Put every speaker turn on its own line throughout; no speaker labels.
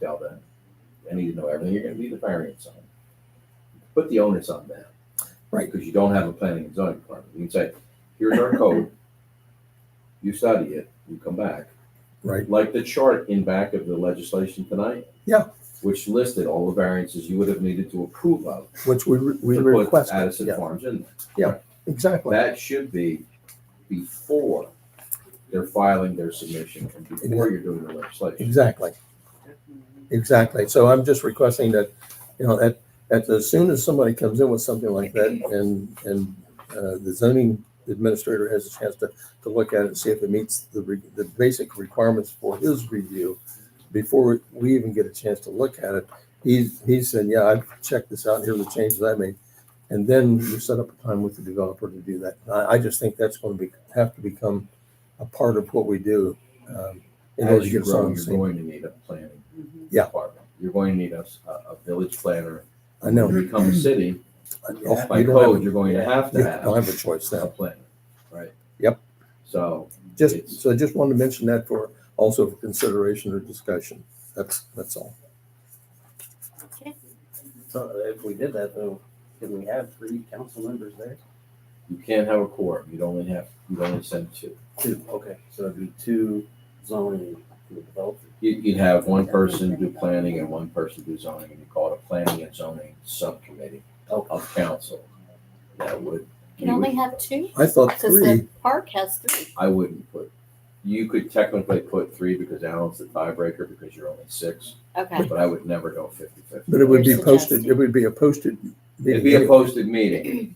tell them, I need to know everything you're gonna be the variance on. Put the onus on them.
Right.
Because you don't have a planning and zoning department. You can say, here's our code. You study it, you come back.
Right.
Like the chart in back of the legislation tonight.
Yeah.
Which listed all the variances you would have needed to approve of.
which we, re- we
to put
requested.
Addison
Yeah,
Farms in there.
exactly.
That should be before they're filing their submission and before you're doing the legislation.
Exactly. Exactly. So I'm just requesting that, you know, at, at, as soon as somebody comes in with something like that and, and, uh, the zoning administrator has a chance to, to look at it and see if it meets the, re- the basic requirements for his review before we even get a chance to look at it. He's, he's saying, yeah, I've checked this out. Here's the changes I made. And then you set up a time with the developer to do that. I, I just think that's going to be, have to become a part of what we do. um, in order
As
to
you
get us on
grow,
the
you're
same-
going to need a planning
Mm-hmm.
Yeah.
department. You're going to need a, a village planner.
I know.
When you become a city,
Mm-hmm. Oh,
by
you don't have
code, you're going to have to
Yeah, don't
have
have a choice
a
now.
planner, right?
Yep.
So
Just,
It's-
so I just wanted to mention that for, also for consideration or discussion. That's, that's all.
So if we did that though, could we have three council members there?
you can't have a quorum. You'd only have, you'd only send two.
Two, okay, so it'd be two zoning and a developer.
You, you'd have one person do planning and one person do zoning, and you call it a planning and zoning subcommittee
Okay.
of council. That would.
Can only have two,
I thought
because the
three,
park has three.
I wouldn't put, you could technically put three because Alan's the tiebreaker because you're only six,
Okay,
but I would never go fifty fifty.
but it would be
We're
posted,
suggesting-
it would be a posted.
It'd be a posted meeting,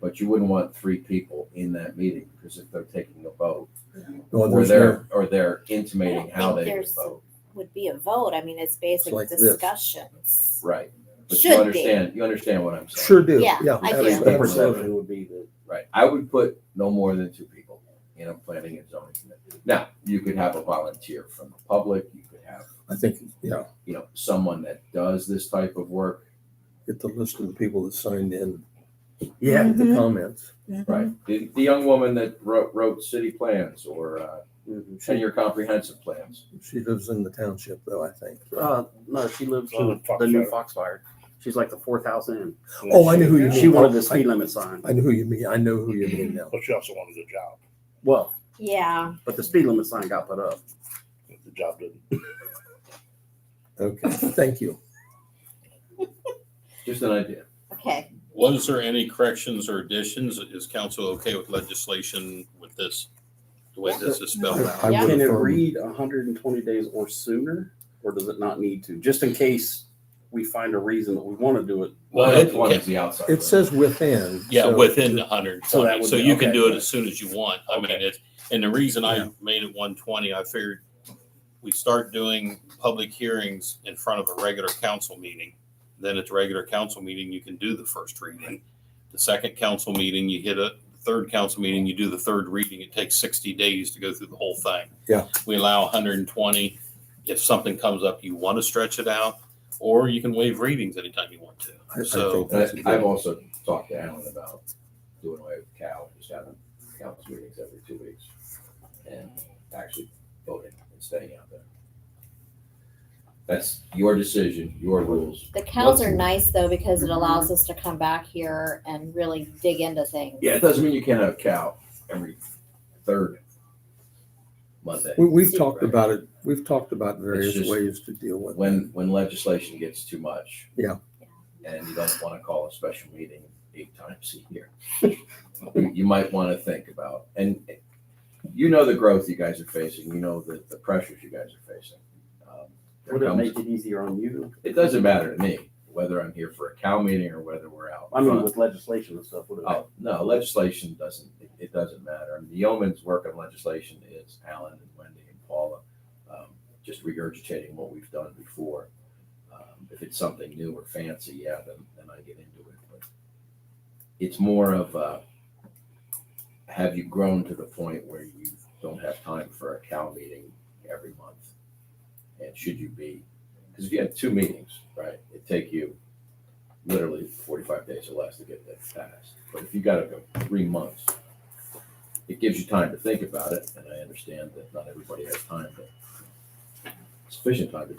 but you wouldn't want three people in that meeting because if they're taking a vote,
Well,
or
Oh, there's no,
they're, or they're intimating how they
think
would
there's-
vote,
would be a vote. I mean, it's basic
like this.
discussions.
right? But you
Should be.
understand, you understand what I'm saying,
sure do,
Yeah,
yeah.
I
At least
do.
absolutely.
The perception would be that
right? I would put no more than two people in a planning and zoning committee. Now, you could have a volunteer from the public, you could have,
I think, yeah,
you know, someone that does this type of work,
get the list of the people that signed in.
Yeah.
with
Mm-hmm.
The comments.
Right. The, the young woman that wrote, wrote city plans or uh,
Mhm.
ten-year comprehensive plans.
She lives in the township though, I think.
Uh, no, she lives
She
on
lives in
the new
Foxfire.
Foxfire. She's like the fourth house in.
Oh, I knew who you mean.
She wanted the speed limit sign.
I know who you mean. I know who you mean now.
But she also wanted a job.
Well,
Yeah,
but the speed limit sign got put up.
The job didn't.
Okay, thank you.
Just an idea.
okay.
Was there any corrections or additions? Is council okay with legislation with this? The way this is spelled out?
I would
Can it
affirm.
read hundred and twenty days or sooner, or does it not need to? Just in case we find a reason that we want to do it.
Well,
Well,
it's one is the outside.
It says within.
Yeah,
so-
within the hundred
So that
twenty,
would
so
be-
you can
okay.
do it as soon as you want. I mean, it's, and the reason I
Yeah.
made it one twenty, I figured we start doing public hearings in front of a regular council meeting. Then at the regular council meeting, you can do the first reading. The second council meeting, you hit a, the third council meeting, you do the third reading. It takes sixty days to go through the whole thing.
Yeah.
We allow hundred and twenty. If something comes up, you want to stretch it out, or you can waive readings anytime you want to.
I- I
So-
think that's a
And
good-
I- I've also talked to Alan about doing away with Cal, just having council meetings every two weeks and actually voting and staying out there. That's your decision, your rules.
The cows are
What's-
nice though, because it allows us to come back here and really dig into things.
Yeah, it doesn't mean you can't have Cal every third Monday.
We, we've talked
Right.
about it, we've talked about various
just-
ways to deal with it.
when, when legislation gets too much.
Yeah.
And you don't want to call a special meeting eight times a year. You you might want to think about, and you know the growth you guys are facing, you know the, the pressures you guys are facing. Um, there
Would it
comes-
make it easier on you?
It doesn't matter to me whether I'm here for a cow meeting or whether we're out.
I mean,
front.
with legislation and stuff, would it?
Oh, no, legislation doesn't, it, it doesn't matter. And The yeoman's work on legislation is Alan and Wendy and Paula, um, just regurgitating what we've done before. Um, If it's something new or fancy, yeah, then, then I get into it. But It's more of a, have you grown to the point where you don't have time for a Cal meeting every month? And should you be, because if you have two meetings, right, it'd take you literally forty-five days or less to get that passed. But if you gotta go three months, it gives you time to think about it, and I understand that not everybody has time, but sufficient time to